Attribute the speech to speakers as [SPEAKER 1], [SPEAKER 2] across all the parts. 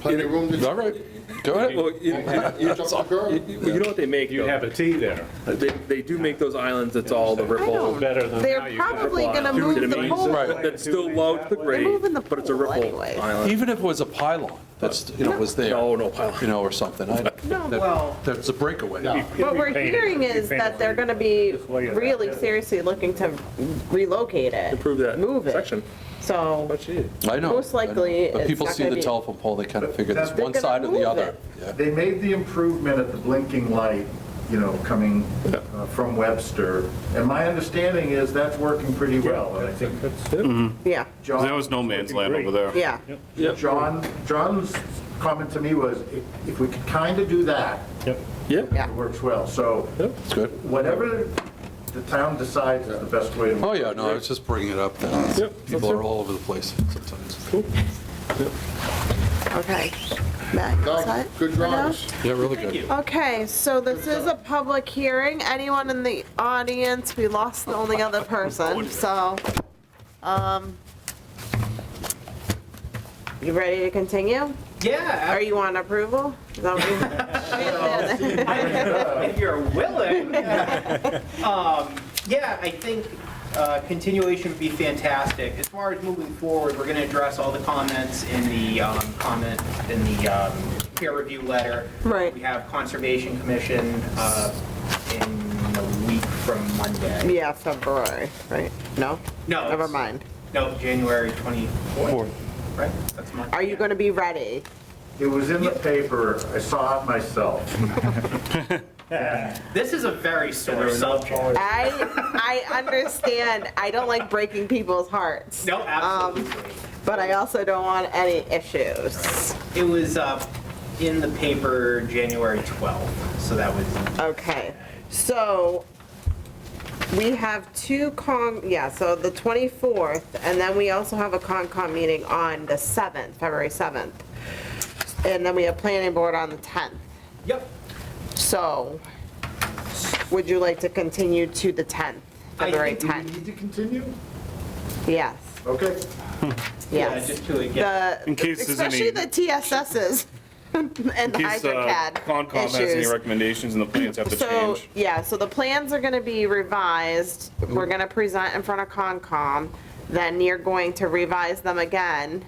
[SPEAKER 1] plenty of room to.
[SPEAKER 2] All right, go ahead.
[SPEAKER 3] Well, you, you-
[SPEAKER 1] Jump the curb.
[SPEAKER 3] you- you know what they make,
[SPEAKER 4] You
[SPEAKER 3] though?
[SPEAKER 4] have a T there.
[SPEAKER 3] They, they do make those islands that's all the
[SPEAKER 5] I
[SPEAKER 3] ripple.
[SPEAKER 5] don't.
[SPEAKER 4] better than how
[SPEAKER 5] They're
[SPEAKER 4] you got it.
[SPEAKER 5] probably going to
[SPEAKER 3] Do
[SPEAKER 5] move
[SPEAKER 3] you know what I
[SPEAKER 5] the
[SPEAKER 3] mean?
[SPEAKER 5] pole.
[SPEAKER 2] Right.
[SPEAKER 3] That's still low to the grade.
[SPEAKER 5] moving the
[SPEAKER 3] But it's a
[SPEAKER 5] pool
[SPEAKER 3] ripple
[SPEAKER 5] anyways.
[SPEAKER 3] island.
[SPEAKER 2] Even if it was a pylon, that's, you know, was there.
[SPEAKER 3] No, no pylon.
[SPEAKER 2] You know, or something. I-
[SPEAKER 5] No,
[SPEAKER 2] that-
[SPEAKER 5] well-
[SPEAKER 2] That's a breakaway.
[SPEAKER 5] What we're hearing is that they're going to be really seriously looking to relocate it.
[SPEAKER 3] Improve that
[SPEAKER 5] Move it.
[SPEAKER 3] section.
[SPEAKER 5] So,
[SPEAKER 3] Gee.
[SPEAKER 2] I know.
[SPEAKER 5] Most likely,
[SPEAKER 2] I know. But
[SPEAKER 5] it's
[SPEAKER 2] people
[SPEAKER 5] not
[SPEAKER 2] see
[SPEAKER 5] gonna
[SPEAKER 2] the
[SPEAKER 5] be-
[SPEAKER 2] telephone pole, they kind of figure it's
[SPEAKER 6] They're
[SPEAKER 2] one
[SPEAKER 5] gonna
[SPEAKER 2] side or the
[SPEAKER 5] move
[SPEAKER 2] other.
[SPEAKER 5] it.
[SPEAKER 2] Yeah.
[SPEAKER 6] They made the improvement at the blinking light, you know, coming uh, from Webster, and my understanding is that's working pretty well, and I think
[SPEAKER 5] yeah,
[SPEAKER 6] John.
[SPEAKER 7] There was no man's land over there.
[SPEAKER 5] yeah.
[SPEAKER 6] John, John's comment to me was, if- if we could kind of do that,
[SPEAKER 5] Yeah.
[SPEAKER 6] it works well, so
[SPEAKER 2] It's good.
[SPEAKER 6] whatever the town decides is the best way to.
[SPEAKER 2] Oh, yeah, no, I was just bringing it up. that People are all over the place sometimes.
[SPEAKER 5] Okay. Matt, you
[SPEAKER 1] No,
[SPEAKER 5] set
[SPEAKER 1] Good
[SPEAKER 5] for now?
[SPEAKER 1] drawings.
[SPEAKER 2] Yeah, really good.
[SPEAKER 5] Okay, so this is a public hearing. Anyone in the audience? We lost the only other person, so, um, you ready to continue?
[SPEAKER 8] Yeah,
[SPEAKER 5] Or you want approval? Is that what you-
[SPEAKER 8] I- if you're willing. Um, Yeah, I think uh, continuation would be fantastic. As far as moving forward, we're going to address all the comments in the um, comment, in the um, peer review letter.
[SPEAKER 5] Right.
[SPEAKER 8] We have Conservation Commission uh, in a week from Monday.
[SPEAKER 5] Yeah, February, right? No?
[SPEAKER 8] No, it's-
[SPEAKER 5] Never mind.
[SPEAKER 8] No, January 24th, right? That's Monday.
[SPEAKER 5] Are you gonna be ready?
[SPEAKER 6] It was in the paper, I saw it myself.
[SPEAKER 8] This is a very sore subject.
[SPEAKER 5] I, I understand, I don't like breaking people's hearts.
[SPEAKER 8] No,
[SPEAKER 5] Um,
[SPEAKER 8] absolutely.
[SPEAKER 5] But I also don't want any issues.
[SPEAKER 8] It was uh, in the paper January 12th, so that was
[SPEAKER 5] Okay, so we have two con, yeah, so the 24th, and then we also have a Concom meeting on the 7th, February 7th. And then we have planning board on the 10th.
[SPEAKER 8] Yep.
[SPEAKER 5] So would you like to continue to the 10th,
[SPEAKER 8] I
[SPEAKER 5] February
[SPEAKER 6] Do we
[SPEAKER 5] 10th?
[SPEAKER 6] need to continue?
[SPEAKER 5] Yes,
[SPEAKER 6] Okay.
[SPEAKER 8] Yeah,
[SPEAKER 5] yes.
[SPEAKER 8] just to get,
[SPEAKER 7] In
[SPEAKER 5] The,
[SPEAKER 7] case there's
[SPEAKER 5] especially
[SPEAKER 7] any,
[SPEAKER 5] the
[SPEAKER 7] in
[SPEAKER 5] TSSs and the
[SPEAKER 7] case uh,
[SPEAKER 5] HydroCAD
[SPEAKER 7] Concom has any
[SPEAKER 5] issues.
[SPEAKER 7] recommendations and the plans have to
[SPEAKER 5] So,
[SPEAKER 7] change.
[SPEAKER 5] yeah, so the plans are gonna be revised, we're gonna present in front of Concom, then you're going to revise them again,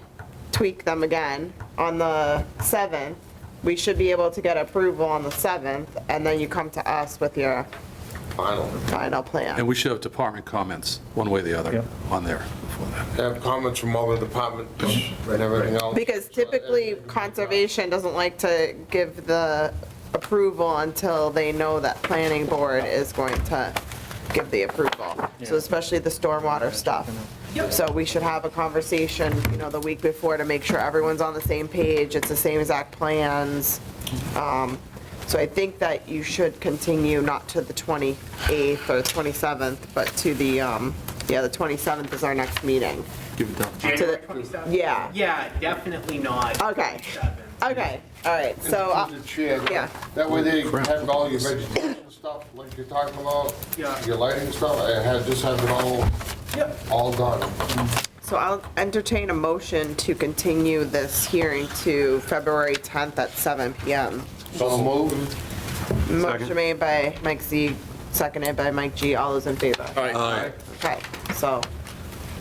[SPEAKER 5] tweak them again on the 7th. We should be able to get approval on the 7th, and then you come to us with your
[SPEAKER 1] Final.
[SPEAKER 5] final plan.
[SPEAKER 2] And we should have department comments, one way or the other, on there. before that.
[SPEAKER 1] Have comments from all the departments and everything else.
[SPEAKER 5] Because typically, conservation doesn't like to give the approval until they know that planning board is going to give the approval. So especially the stormwater stuff. So we should have a conversation, you know, the week before to make sure everyone's on the same page, it's the same exact plans. Um, So I think that you should continue not to the 28th or 27th, but to the, um, yeah, the 27th is our next meeting.
[SPEAKER 2] Give it down.
[SPEAKER 8] January
[SPEAKER 5] to the-
[SPEAKER 8] 27th?
[SPEAKER 5] yeah.
[SPEAKER 8] Yeah, definitely not.
[SPEAKER 5] Okay.
[SPEAKER 8] 27th.
[SPEAKER 5] Okay, all right, so, uh,
[SPEAKER 1] Through the chair.
[SPEAKER 5] yeah.
[SPEAKER 1] That way they have all your vegetation stuff, like you're talking about,
[SPEAKER 8] Yeah.
[SPEAKER 1] your lighting stuff, and have, just have it all,
[SPEAKER 8] Yep.
[SPEAKER 1] all done.
[SPEAKER 5] so I'll entertain a motion to continue this hearing to February 10th at 7 PM.
[SPEAKER 1] So move.
[SPEAKER 5] Motion made by Mike Z, seconded by Mike G. All those in favor?
[SPEAKER 2] Aye.
[SPEAKER 5] Okay, so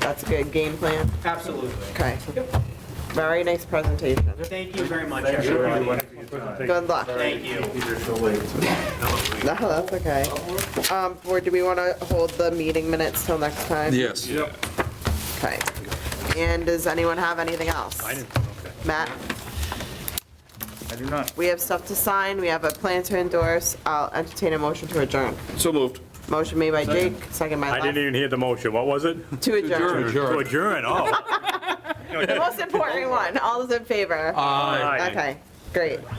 [SPEAKER 5] that's a good game plan.
[SPEAKER 8] Absolutely.
[SPEAKER 5] Okay,
[SPEAKER 8] Yep.
[SPEAKER 5] very nice presentation.
[SPEAKER 8] Thank you very much,
[SPEAKER 6] Thank you,
[SPEAKER 8] everybody.
[SPEAKER 6] everyone, for your time.
[SPEAKER 5] Good luck.
[SPEAKER 8] Thank you.
[SPEAKER 6] You're so late.
[SPEAKER 5] No, that's okay. Um, Or do we want to hold the meeting minutes till next time?
[SPEAKER 2] Yes.
[SPEAKER 5] Okay. And does anyone have anything else? I
[SPEAKER 4] didn't, okay.
[SPEAKER 5] Matt?
[SPEAKER 4] I do not.
[SPEAKER 5] We have stuff to sign, we have a plan to endorse, I'll entertain a motion to adjourn.
[SPEAKER 7] So moved.
[SPEAKER 5] Motion made by Jake, second by
[SPEAKER 4] I didn't
[SPEAKER 5] Lon.
[SPEAKER 4] even hear the motion. What was it?
[SPEAKER 5] To adjourn.
[SPEAKER 4] To adjourn, oh.
[SPEAKER 5] The most important one, all those in favor?
[SPEAKER 4] Aye.
[SPEAKER 5] Okay, great.